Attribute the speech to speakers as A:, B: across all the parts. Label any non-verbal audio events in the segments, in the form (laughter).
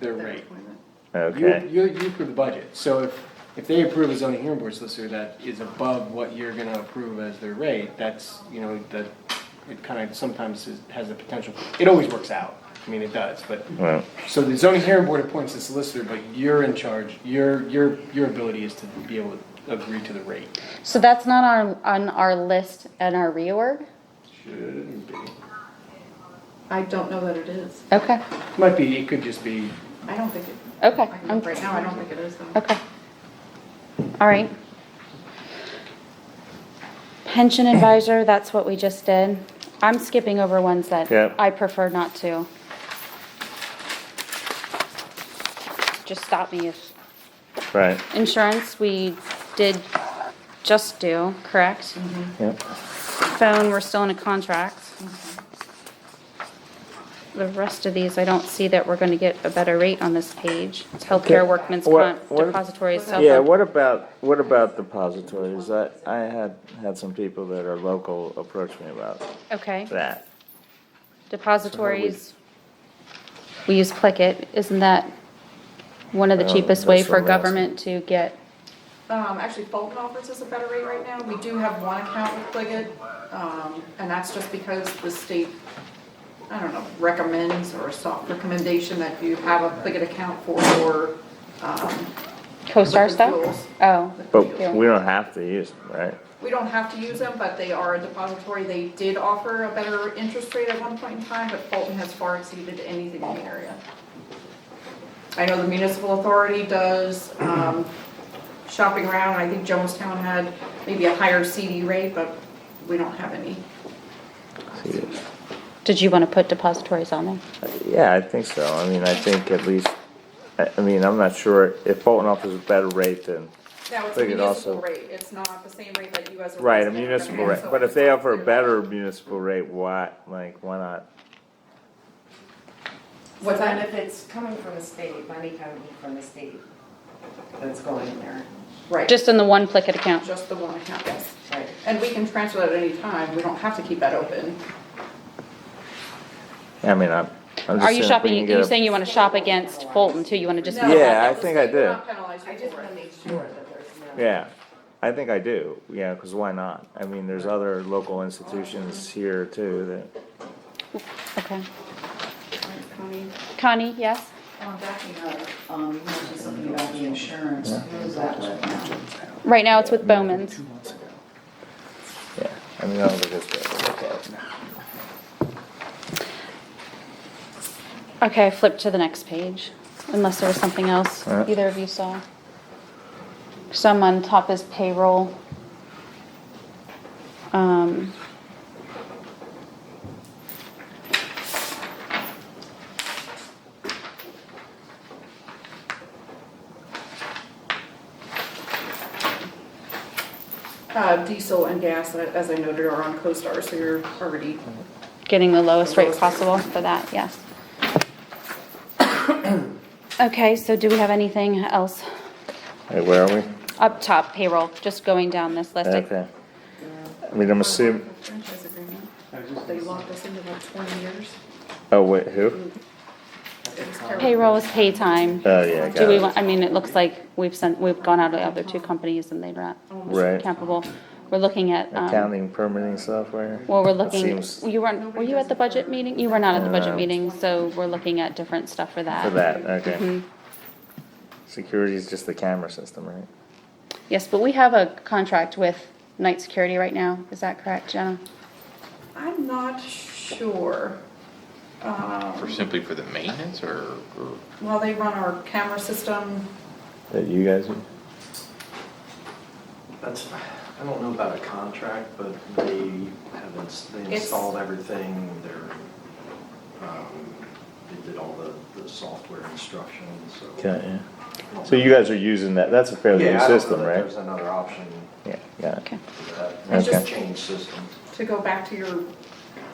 A: their rate.
B: Okay.
A: You, you you approve the budget, so if, if they approve a zoning hearing board solicitor that is above what you're gonna approve as their rate, that's, you know, that, it kinda sometimes is- has the potential, it always works out, I mean, it does, but.
B: Right.
A: So the zoning hearing board appoints the solicitor, but you're in charge, your, your, your ability is to be able to agree to the rate.
C: So that's not on, on our list and our reorg?
A: Should be.
D: I don't know that it is.
C: Okay,
A: Might be, it could just be,
D: I don't think it.
C: okay,
D: I can
C: I'm-
D: look Right now, I don't think it is though.
C: okay. All right. Pension advisor, that's what we just did. I'm skipping over ones that
B: Yeah.
C: I prefer not to. Just stop me if,
B: Right.
C: insurance, we did just do, correct?
B: Yep.
C: phone, we're still in a contract. The rest of these, I don't see that we're gonna get a better rate on this page. It's healthcare, workman's
B: What-
C: comp,
B: what-
C: depositories, cell
B: Yeah.
C: phone.
B: What about what about depositories? I I had had some people that are local approach me about
C: Okay,
B: that.
C: depositories. We use Plickit, isn't that one of the
B: Well,
C: cheapest way
B: Oh, that's
C: for
B: what I'm asking.
C: government to get?
D: Um, actually Fulton offers us a better rate right now. We do have one account with Pliget, um, and that's just because the state, I don't know, recommends or a soft recommendation that you have a Pliget account for your, um,
C: CoStar
D: Liquid
C: stuff?
D: fuels.
C: Oh,
B: But
C: Yeah.
B: we don't have to use them, right?
D: we don't have to use them, but they are a depository. They did offer a better interest rate at one point in time, but Fulton has far exceeded anything in the area. I know the municipal authority does, um, shopping around, I think Jonestown had maybe a higher CD rate, but we don't have any.
B: See,
C: did you wanna put depositories on there?
B: Yeah, I think so. I mean, I think at least. I, I mean, I'm not sure if Fulton offers a better rate than.
D: Now, it's a
B: They could
D: municipal
B: also-
D: rate, it's not the same rate that you as a.
B: Right, a
D: resident are
B: municipal
D: gonna
B: rate,
D: have, so
B: but if
D: it's
B: they
D: not
B: offer a
D: clear.
B: better municipal rate, why, like, why not?
E: So
D: What's
E: then
D: that?
E: if it's coming from the state, money coming from the state, that's going there,
D: Right,
C: Just in the one Plickit account?
D: just the one account, yes.
E: right?
D: And we can transfer that at any time, we don't have to keep that open.
B: I mean, I'm, I'm just
C: Are
B: saying if we
C: you
B: can
C: shopping,
B: get
C: you're
B: a-
C: saying you wanna shop against Fulton too, you wanna just?
D: No,
B: Yeah,
D: that-
B: I
D: the
B: think I
D: state will
B: did.
D: not penalize you
E: I just
D: for it.
E: wanna make sure that there's no.
B: Yeah, I think I do, yeah, cause why not? I mean, there's other local institutions here too that,
C: Okay.
D: Connie,
C: Connie, yes?
F: Um, backing up, um, you mentioned something about the insurance, who's that with now?
C: Right now it's with Bowman's.
B: yeah, I mean, I don't think it's bad, okay.
C: Okay, flip to the next page, unless there was something else
B: Alright.
C: either of you saw. Some on top is payroll. Um,
D: Uh, diesel and gas, uh, as I noted, are on CoStar, so you're already,
C: getting the lowest rate
D: Lowest rate.
C: possible for that, yes. (coughs) Okay, so do we have anything else?
B: Hey, where are we?
C: Up top payroll, just going down this list. I-
B: Okay. I mean, I'm assuming,
D: franchise agreement. They locked us into like twenty years.
B: oh, wait, who?
D: It was terrible.
C: Payroll is pay time.
B: Oh, yeah, I
C: Do
B: got
C: we
B: it.
C: want, I mean, it looks like we've sent, we've gone out to the other two companies and they're not
B: Right.
C: capable. We're looking at, um,
B: Accounting permitting software?
C: Well, we're
B: That
C: looking,
B: seems-
C: you weren't, were you at the budget meeting? You were not at the budget
B: No.
C: meeting, so we're looking at different stuff for that.
B: For that,
C: Mm-hmm.
B: okay. Security is just the camera system, right?
C: Yes, but we have a contract with Night Security right now, is that correct, Jenna?
D: I'm not sure.
G: For
D: Um,
G: simply for the maintenance or, or
D: well, they run our camera system,
B: That you guys,
H: That's, I don't know about a contract, but they have, ins- they
D: It's-
H: installed everything, they're, um, they did all the, the software instructions, so.
B: yeah.
H: I don't
B: So you
H: know.
B: guys are using that, that's a fairly
H: Yeah,
B: new
H: I don't know
B: system,
H: that
B: right?
H: There's another option
B: Yeah, got it.
C: Okay.
H: for that,
B: It's
H: It's
B: just-
H: a change system.
D: to go back to your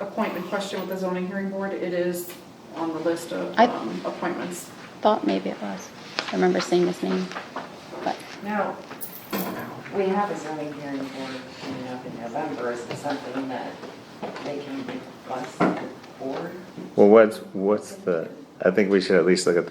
D: appointment question with the zoning hearing board, it is on the list of,
C: I-
D: um, appointments.
C: Thought maybe it was. I remember seeing this name, but,
E: Now, we have a zoning hearing board coming up in November, is it something that they can request the board?
B: Well, what's, what's the, I think we should at least look at the